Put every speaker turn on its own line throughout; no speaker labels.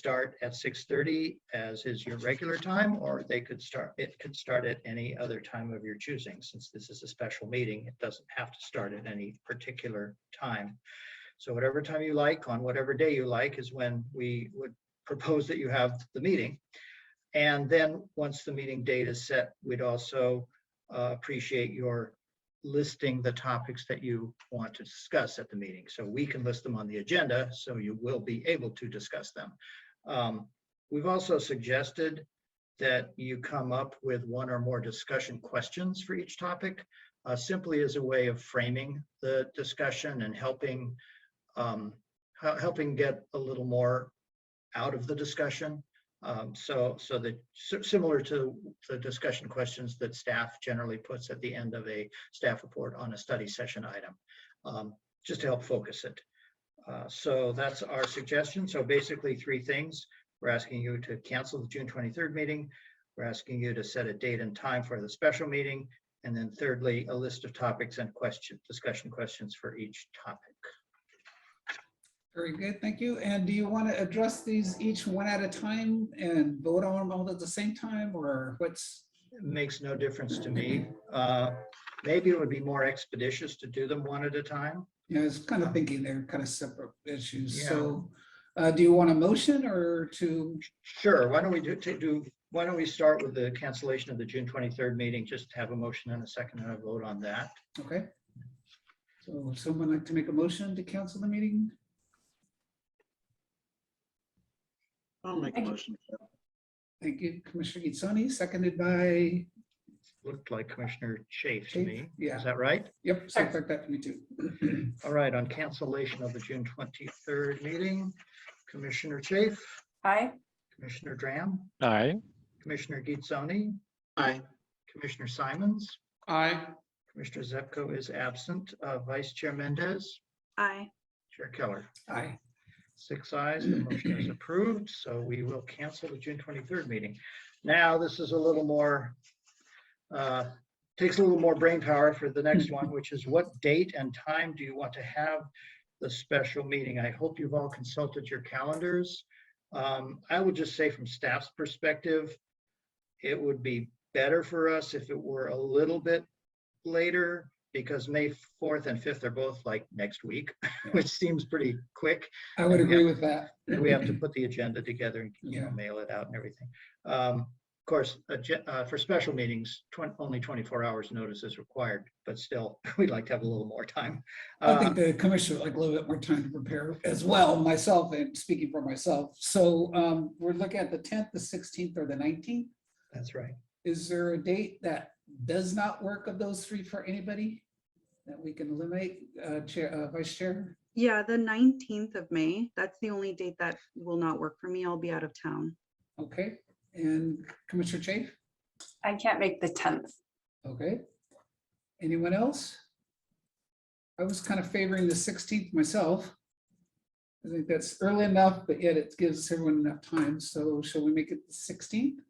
start at 6:30 as is your regular time, or they could start, it could start at any other time of your choosing. Since this is a special meeting, it doesn't have to start at any particular time. So whatever time you like, on whatever day you like, is when we would propose that you have the meeting. And then, once the meeting date is set, we'd also uh, appreciate your listing the topics that you want to discuss at the meeting. So we can list them on the agenda, so you will be able to discuss them. Um, We've also suggested that you come up with one or more discussion questions for each topic, uh, simply as a way of framing the discussion and helping, um, hel- helping get a little more out of the discussion. Um, So, so that, si- similar to the discussion questions that staff generally puts at the end of a staff report on a study session item, um, just to help focus it. Uh, So that's our suggestion. So basically, three things. We're asking you to cancel the June 23rd meeting. We're asking you to set a date and time for the special meeting. And then thirdly, a list of topics and question, discussion questions for each topic.
Very good, thank you. And do you want to address these each one at a time and vote on them all at the same time, or what's?
It Makes no difference to me. Uh, Maybe it would be more expeditious to do them one at a time.
You know, I was kind of thinking they're kind of separate issues, so uh, do you want a motion or to,
Sure, why don't we do, to do, why don't we start with the cancellation of the June 23rd meeting? Just have a motion and a second and a vote on that.
okay? So would someone like to make a motion to cancel the meeting?
I'll make a motion.
Thank you, Commissioner Gitzoni, seconded by,
Looked like Commissioner Chafe to
Chafe,
me.
yeah.
Is that right?
yep, sounds like that to me too.
All right, on cancellation of the June 23rd meeting, Commissioner Chafe,
Aye.
Commissioner Dram,
Aye.
Commissioner Gitzoni,
Aye.
Commissioner Simons,
Aye.
Commissioner Zepko is absent, uh, Vice Chair Mendez,
Aye.
Chair Keller.
Aye.
Six ayes, the motion is approved, so we will cancel the June 23rd meeting. Now, this is a little more, uh, takes a little more brain power for the next one, which is what date and time do you want to have the special meeting? I hope you've all consulted your calendars. Um, I would just say from staff's perspective, it would be better for us if it were a little bit later because May 4th and 5th are both like next week, which seems pretty quick.
I would agree with that.
And we have to put the agenda together and, you know,
Yeah.
mail it out and everything. Um, Of course, agen- uh, for special meetings, twen- only 24 hours notice is required, but still, we'd like to have a little more time.
I
Uh,
think the commissioner would like a little bit more time to prepare as well, myself and speaking for myself. So um, we're looking at the tenth, the sixteenth or the nineteenth.
That's right.
Is there a date that does not work of those three for anybody? That we can eliminate, uh, Chair, uh, Vice Chair?
Yeah, the nineteenth of May. That's the only date that will not work for me. I'll be out of town.
Okay, and Commissioner Chafe?
I can't make the tenth.
Okay. Anyone else? I was kind of favoring the sixteenth myself. I think that's early enough, but yet it gives everyone enough time. So shall we make it the sixteenth?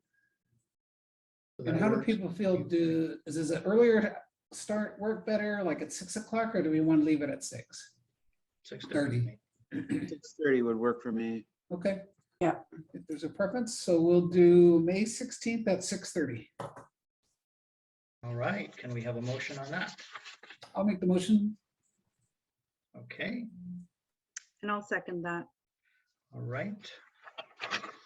So
And
that
how do
works.
people feel? Do, is is it earlier start work better, like at six o'clock, or do we want to leave it at six?
6:30.
Thirty.
Six thirty would work for me.
Okay.
Yeah.
If there's a preference, so we'll do May sixteenth at six thirty.
All right, can we have a motion on that?
I'll make the motion.
Okay,
And I'll second that.
all right.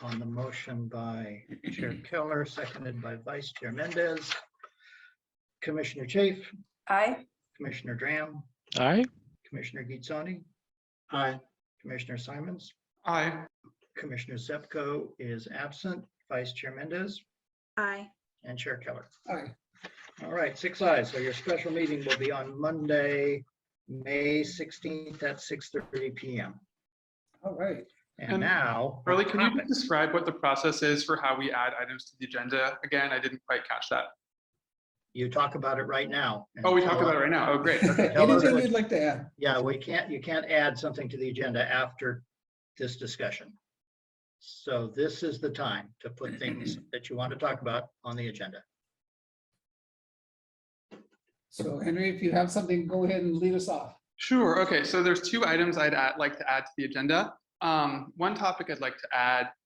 On the motion by Chair Keller, seconded by Vice Chair Mendez. Commissioner Chafe,
I,
Commissioner Dram,
Aye.
Commissioner Gitzoni,
Aye.
Commissioner Simons.
Aye.
Commissioner Zepko is absent, Vice Chair Mendez
Aye.
and Chair Keller.
Aye.
All right, six eyes. So your special meeting will be on Monday, May 16th at 6:30 PM.
All right.
And
And
now.
Carly, can you
topic.
describe what the process is for how we add items to the agenda? Again, I didn't quite catch that.
You talk about it right now. and
Oh, we
tell
talked about it
us-
right now. Oh, great.
Okay, tell us
Anything
what-
you'd like to add?
Yeah, we can't, you can't add something to the agenda after this discussion. So this is the time to put things that you want to talk about on the agenda.
So Henry, if you have something, go ahead and lead us off.
Sure. Okay. So there's two items I'd add, like to add to the agenda. Um, one topic I'd like to add